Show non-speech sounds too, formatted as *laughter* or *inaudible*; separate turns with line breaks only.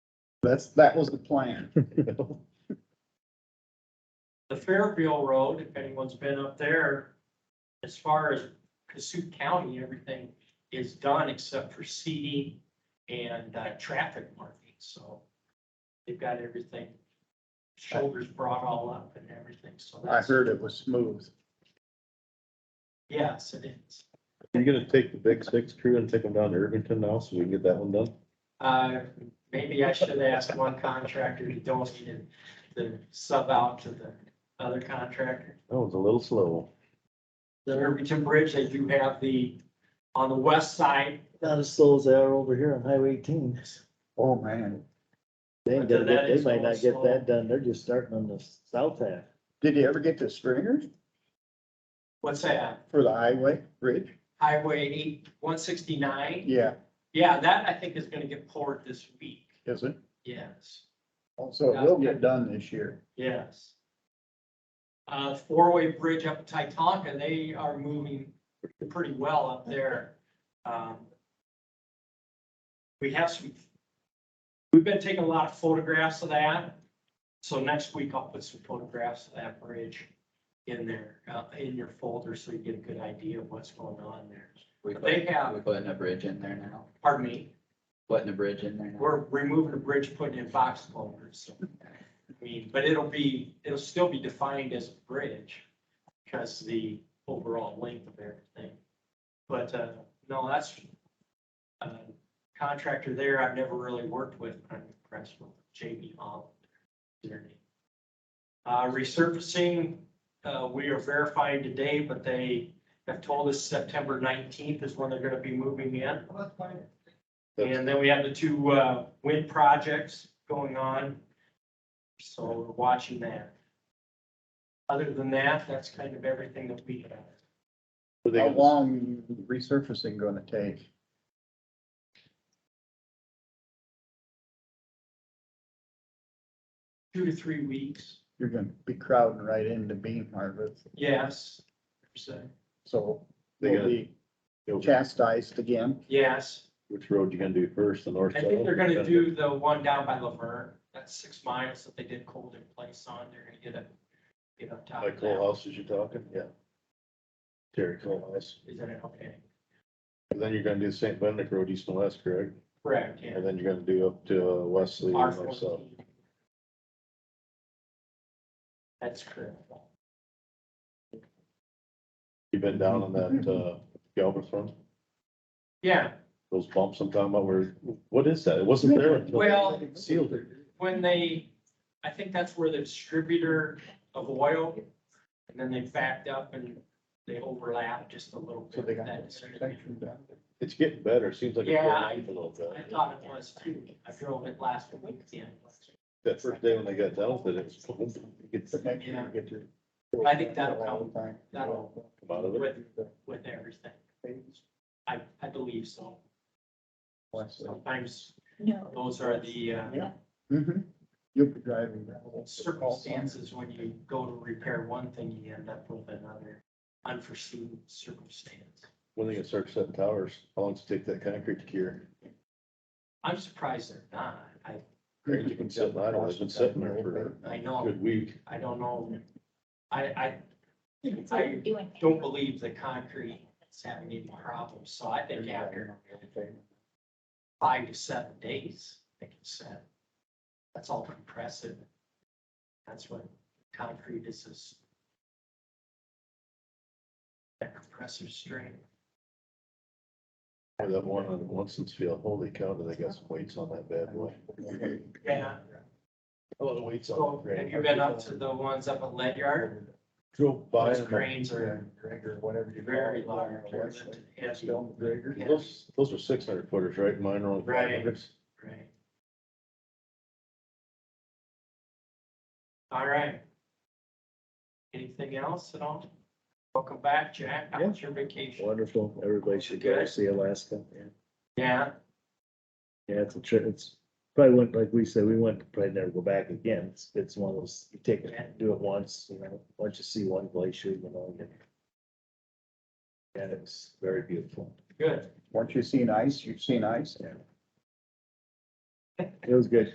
That's, that was the plan. *laughs* you know?
The Fairfield Road, if anyone's been up there, as far as Cassup County, everything is done except for seeding and uh, traffic marking, so they've got everything, shoulders brought all up and everything, so
I
that's,
heard it was smooth.
yes, it is.
You gonna take the big six crew and take them down to Irvington now so we can get that one done?
Uh, maybe I should ask one contractor to donate it, the sub out to the other contractor.
That was a little slow.
The Irvington Bridge, they do have the, on the west side,
Not as slow as they are over here on Highway eighteen.
Oh, man.
They ain't gonna
That
get, they
is
might
going
not get
slow.
that done. They're just starting on the south half.
Did you ever get to Stringers
what's that?
for the highway bridge?
Highway eight, one sixty-nine.
Yeah,
Yeah, that I think is gonna get poured this week.
is it?
Yes,
Also, it will get done this year.
yes. Uh, four-way bridge up at Titanca, they are moving pretty well up there. Um, We have some, we've been taking a lot of photographs of that. So next week I'll put some photographs of that bridge in there, uh, in your folder, so you get a good idea of what's going on there.
We
But they
put,
have-
we putting a bridge in there now,
Pardon me?
putting a bridge in there now.
We're removing a bridge, putting in box culverts, so, I mean, but it'll be, it'll still be defined as a bridge because the overall length of everything. But, uh, no, that's, uh, contractor there I've never really worked with, but I'm impressed with JB Holland. is their name. Uh, resurfacing, uh, we are verifying today, but they have told us September nineteenth is when they're gonna be moving in. And then we have the two uh, wind projects going on. So we're watching that. Other than that, that's kind of everything that we have.
Were they
How
gonna-
long resurfacing gonna take?
Two to three weeks,
You're gonna be crowding right into bean harvest,
yes. So,
so
They
they'll
gotta-
be chastised again.
Yes,
Which road you gonna do first, the north?
I think
south?
they're gonna do the one down by Laverne, that's six miles that they did cold in place on, they're gonna get up, get up top
Like
of
Cole
that.
House as you're talking, yeah. Terry Cole House.
Is that okay?
And then you're gonna do St. Benedict Road east and west, correct?
Correct, yeah.
And then you're gonna do up to uh, Wesley
R
and north south.
fourteen. That's correct.
You been down on that, uh, Galbraith one?
Yeah,
Those bumps I'm talking about where, what is that? It wasn't there. until they
Well-
Sealed it.
when they, I think that's where the distributor of oil, and then they backed up and they overlapped just a little
So
bit.
they got
That
that
distributor.
section done.
It's getting better. It Seems like. it's
Yeah,
going
I-
up a little bit.
I thought it was too, I drove it last weekend.
That first day when they got done with it, it was. it's
But next year you get your-
I think that'll come. That'll-
come out of it.
With, with everything, I, I believe so. Sometimes
No.
those are the uh,
Mhm. You'll be driving that whole.
circumstances when you go to repair one thing, you end up with another unforeseen circumstance.
When they get start setting towers, how long does it take that concrete to cure?
I'm surprised they're not, I,
It's been sitting idle. It's been sitting there for
I
a
know.
good week.
I don't know. I, I
It's
I
like doing-
don't believe the concrete is having any problems, so I think after five to seven days, they can set. That's all compressive. That's what concrete is, is that compressive strength.
Or That one on Winstonville, holy cow, do they got some weights on that bad boy.
Yeah,
A lot of weights
so
on it.
have Oh, you been up to the ones up at Ledyard?
Drove by.
Those
them.
cranes are
Gregor, whatever you.
very
call it,
large.
uh,
they're
Wesley,
heavy,
Stone Gregor.
Yeah.
Those, those are six hundred footers, right? Mine are only five
Right.
hundreds.
Right. All right. Anything else at all? Welcome back, Jack. How was your vacation?
Wonderful. Everybody should go
Good.
see Alaska. Yeah.
Yeah,
Yeah, it's a trip. It's probably went, like we said, we went, probably never go back again. It's, it's one of those, you take it, do it once, you know, once you see one glacier, you know. you- And it's very beautiful.
good.
Once you've seen ice, you've seen ice.
It was good.